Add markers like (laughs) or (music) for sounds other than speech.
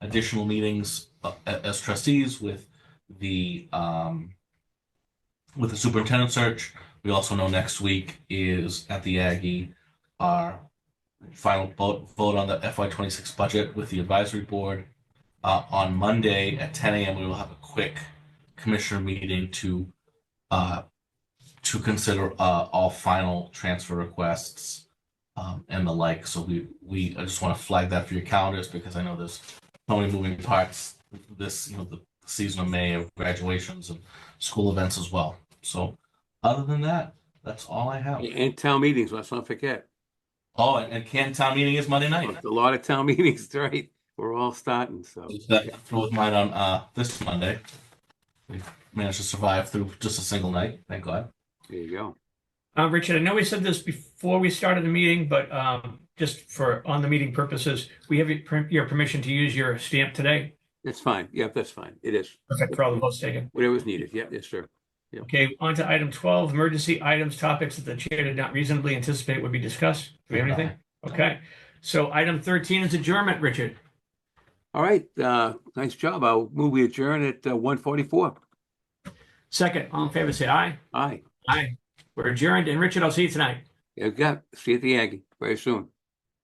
additional meetings uh, a- as trustees with the, um, with the superintendent search. We also know next week is at the Aggie, our final vote, vote on the FY twenty-six budget with the advisory board. Uh, on Monday at ten AM, we will have a quick commissioner meeting to, uh, to consider, uh, all final transfer requests, um, and the like. So we, we, I just want to flag that for your calendars because I know there's so many moving parts this, you know, the season of May of graduations and school events as well. So other than that, that's all I have. And town meetings, let's not forget. Oh, and, and Canton Town Meeting is Monday night. A lot of town (laughs) meetings, right? We're all starting, so. That was mine on uh, this Monday. We managed to survive through just a single night, thank God. There you go. Uh, Richard, I know we said this before we started the meeting, but, um, just for on the meeting purposes, we have your, per- your permission to use your stamp today. That's fine. Yep, that's fine. It is. Perfect for all the votes taken. Whatever's needed. Yep, yes, sir. Okay, on to item twelve, emergency items, topics that the chair did not reasonably anticipate would be discussed. Do we have Uh, anything? Okay, so item thirteen is adjournment, Richard. All right, uh, nice job. I'll move we adjourn at uh, one forty-four. Second, all in favor, say aye. Aye, Aye. We're adjourned, and Richard, I'll see you tonight. you got, see you at the Aggie very soon.